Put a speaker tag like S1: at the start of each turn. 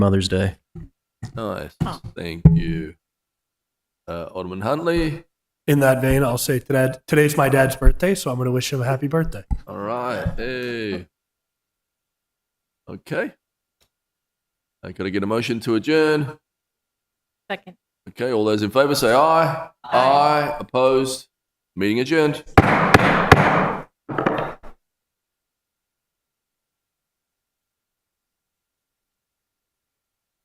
S1: Mother's Day.
S2: Nice.
S3: Oh.
S2: Thank you. Uh, Alderman Huntley.
S4: In that vein, I'll say today, today's my dad's birthday, so I'm going to wish him a happy birthday.
S2: All right. Hey. Okay. Uh, I gotta get a motion to adjourn.
S3: Second.
S2: Okay, all those in favor say aye. Aye. Opposed? Meeting adjourned.